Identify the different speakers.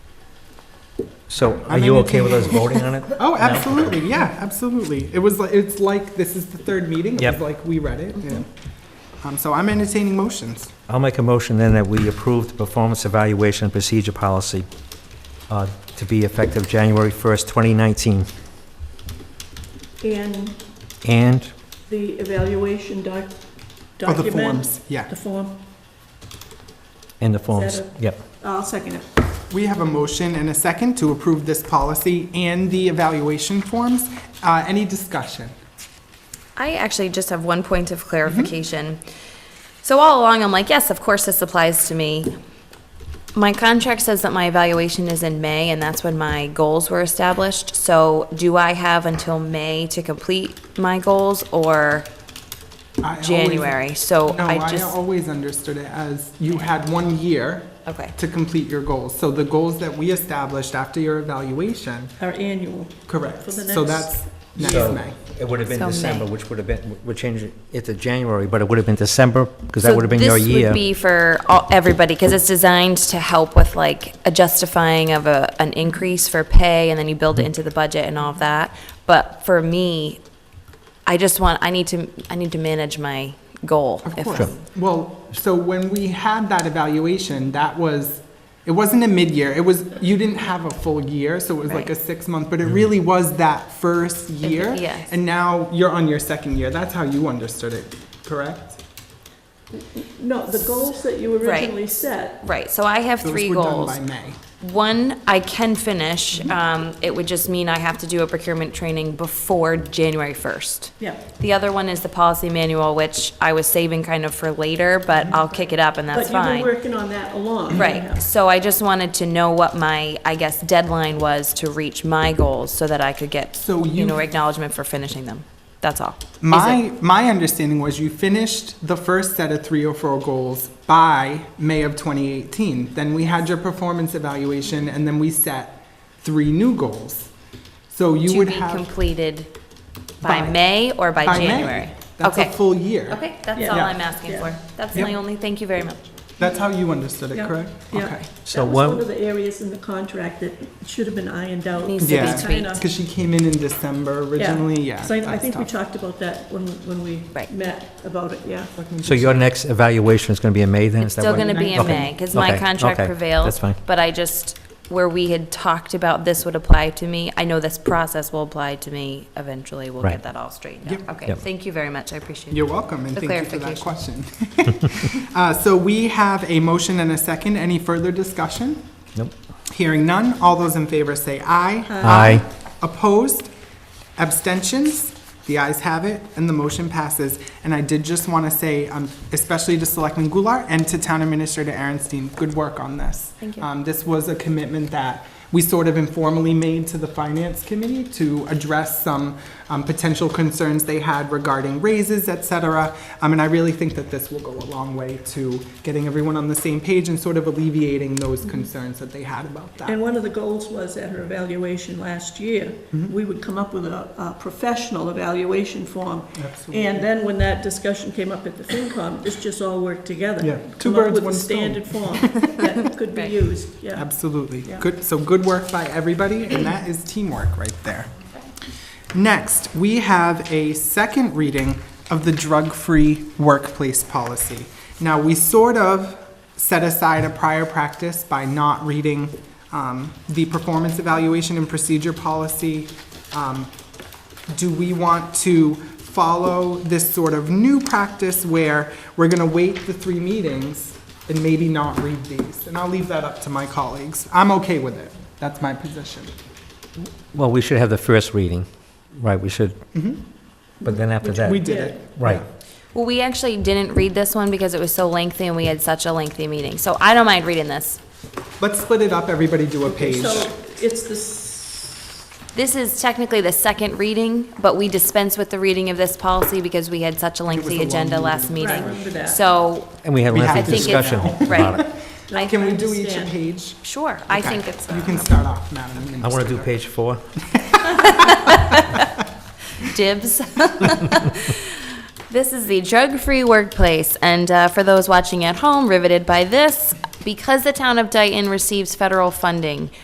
Speaker 1: So are
Speaker 2: I'm
Speaker 1: you
Speaker 2: in
Speaker 1: okay with us voting on it?
Speaker 2: Oh,
Speaker 1: No?
Speaker 2: absolutely, yeah, absolutely. It was, like it's like, this is the third meeting. It
Speaker 1: Yep.
Speaker 2: was like, we read it. and, Um, so I'm entertaining motions.
Speaker 1: I'll make a motion then that we approve the performance evaluation procedure policy uh, to be effective January 1st, 2019.
Speaker 3: And
Speaker 1: And
Speaker 3: the evaluation doc,
Speaker 2: Oh, the
Speaker 3: document.
Speaker 2: forms, Yeah.
Speaker 3: The form.
Speaker 1: In the forms,
Speaker 3: Is that
Speaker 1: yep.
Speaker 3: I'll second it.
Speaker 2: We have a motion and a second to approve this policy and the evaluation forms. Uh, any discussion?
Speaker 4: I actually just have one point of clarification. So all along, I'm like, yes, of course this applies to me. My contract says that my evaluation is in May, and that's when my goals were established. So do I have until May to complete my goals or
Speaker 2: I always-
Speaker 4: January? So
Speaker 2: No,
Speaker 4: I
Speaker 2: I
Speaker 4: just,
Speaker 2: always understood it as you had one year
Speaker 4: okay,
Speaker 2: to complete your goals. So the goals that we established after your evaluation,
Speaker 3: Our annual.
Speaker 2: correct.
Speaker 3: For the
Speaker 2: So
Speaker 3: next-
Speaker 2: that's next
Speaker 1: So
Speaker 2: May.
Speaker 1: It would have been
Speaker 4: So May.
Speaker 1: December, which would have been, we're changing it to January, but it would have been December, because that
Speaker 4: So
Speaker 1: would have been your
Speaker 4: This
Speaker 1: year.
Speaker 4: would be for all- everybody, because it's designed to help with like a justifying of a, an increase for pay, and then you build it into the budget and all of that. But for me, I just want, I need to, I need to manage my goal.
Speaker 2: Of
Speaker 4: if-
Speaker 2: course. Well, so when we had that evaluation, that was, it wasn't a mid-year, it was, you didn't have a full year, so it was like a
Speaker 4: Right. Mm-hmm.
Speaker 2: six-month, but it really was that first year.
Speaker 4: yes.
Speaker 2: And now you're on your second year, that's how you understood it, correct?
Speaker 3: No, the goals that you
Speaker 4: Right.
Speaker 3: originally set.
Speaker 4: Right, so I have
Speaker 2: Those
Speaker 4: three
Speaker 2: were done By
Speaker 4: goals.
Speaker 2: May.
Speaker 4: One, I can finish, um, it would just mean I have to do a procurement training before January first.
Speaker 3: Yeah.
Speaker 4: The other one is the policy manual, which I was saving kind of for later, but I'll kick it up and that's
Speaker 3: But
Speaker 4: fine.
Speaker 3: you've been working on that along. yeah.
Speaker 4: Right, so I just wanted to know what my, I guess, deadline was to reach my goals so that I could get,
Speaker 2: So
Speaker 4: you know,
Speaker 2: you,
Speaker 4: acknowledgement for finishing them. That's all. Is it-
Speaker 2: my, my understanding was you finished the first set of three or four goals by May of 2018. Then we had your performance evaluation, and then we set three new goals. So you
Speaker 4: To
Speaker 2: would
Speaker 4: be
Speaker 2: have.
Speaker 4: completed by
Speaker 2: By-
Speaker 4: May or by
Speaker 2: By May.
Speaker 4: January?
Speaker 2: That's a
Speaker 4: Okay.
Speaker 2: full year.
Speaker 4: Okay, that's
Speaker 3: Yeah.
Speaker 4: all
Speaker 2: Yeah.
Speaker 4: I'm asking
Speaker 3: Yeah.
Speaker 4: for. That's
Speaker 2: Yep.
Speaker 4: my only, thank you very much.
Speaker 2: That's how you understood it,
Speaker 3: Yeah.
Speaker 2: correct?
Speaker 3: Yeah.
Speaker 2: Okay.
Speaker 1: So
Speaker 3: That was
Speaker 1: what-
Speaker 3: one of the areas in the contract that should have been ironed out.
Speaker 4: Needs
Speaker 2: to be Yeah.
Speaker 3: Kinda-
Speaker 2: Because she came in in December originally, yeah.
Speaker 3: So I I
Speaker 2: that's
Speaker 3: think we
Speaker 2: tough.
Speaker 3: talked about that when, when we
Speaker 4: Right.
Speaker 3: met about it, yeah.
Speaker 1: So your next evaluation is going to be in May then?
Speaker 4: It's
Speaker 1: Is that
Speaker 4: still
Speaker 1: what-
Speaker 4: gonna be in
Speaker 1: Okay,
Speaker 4: May, because my
Speaker 1: okay,
Speaker 4: contract
Speaker 1: okay,
Speaker 4: prevails.
Speaker 1: That's fine.
Speaker 4: But I just, where we had talked about this would apply to me, I know this process will apply to me eventually. We'll
Speaker 1: Right.
Speaker 4: get that all straightened out. Okay,
Speaker 1: Yep.
Speaker 4: thank you very much. I appreciate it.
Speaker 2: You're welcome, and
Speaker 4: The
Speaker 2: thank you for that question. Uh, So we have a motion and a second. Any further discussion?
Speaker 1: Nope.
Speaker 2: Hearing none. All those in favor say aye.
Speaker 1: Aye.
Speaker 2: Opposed? Abstentions? The ayes have it, and the motion passes. And I did just want to say, um, especially to Selectman Goulart and to Town Administrator Aaronstein, good work on this.
Speaker 4: Thank you.
Speaker 2: Um, This was a commitment that we sort of informally made to the Finance Committee to address some um, potential concerns they had regarding raises, et cetera. Um, And I really think that this will go a long way to getting everyone on the same page and sort of alleviating those concerns that they had about that.
Speaker 3: And one of the goals was at her evaluation last year,
Speaker 2: Mm-hmm.
Speaker 3: we would come up with a, a professional evaluation form.
Speaker 2: Absolutely.
Speaker 3: And then when that discussion came up at the FinCom, this just all worked together.
Speaker 2: Yeah, two
Speaker 3: Come up
Speaker 2: birds,
Speaker 3: with a
Speaker 2: one stone.
Speaker 3: Standard form that could be
Speaker 4: Right.
Speaker 3: used, yeah.
Speaker 2: Absolutely.
Speaker 3: Yeah.
Speaker 2: Good, so good work by everybody, and that is teamwork right there. Next, we have a second reading of the drug-free workplace policy. Now, we sort of set aside a prior practice by not reading um, the performance evaluation and procedure policy. Um, Do we want to follow this sort of new practice where we're going to wait the three meetings and maybe not read these? And I'll leave that up to my colleagues. I'm okay with it. That's my position.
Speaker 1: Well, we should have the first reading, right, we should. But then after
Speaker 2: Mm-hmm. We
Speaker 1: that,
Speaker 2: did it.
Speaker 1: right.
Speaker 4: Well, we actually didn't read this one because it was so lengthy and we had such a lengthy meeting. So I don't mind reading this.
Speaker 2: Let's split it up, everybody do a page.
Speaker 3: So it's the, s-
Speaker 4: This is technically the second reading, but we dispense with the reading of this policy because we had such a
Speaker 2: a
Speaker 4: lengthy
Speaker 2: long
Speaker 4: agenda last
Speaker 3: Right,
Speaker 4: meeting.
Speaker 3: remember that.
Speaker 4: So
Speaker 1: And we had a
Speaker 2: We
Speaker 1: lengthy
Speaker 2: have to do
Speaker 1: discussion
Speaker 4: that.
Speaker 1: about it.
Speaker 4: I,
Speaker 2: Can we do each a
Speaker 3: understand.
Speaker 2: page?
Speaker 4: sure, I
Speaker 2: Okay.
Speaker 4: think it's,
Speaker 2: You can start off, Madam
Speaker 1: I want to do
Speaker 2: Administrator.
Speaker 1: page four.
Speaker 4: dibs. This is the drug-free workplace, and uh, for those watching at home riveted by this, because the town of Dayton receives federal funding,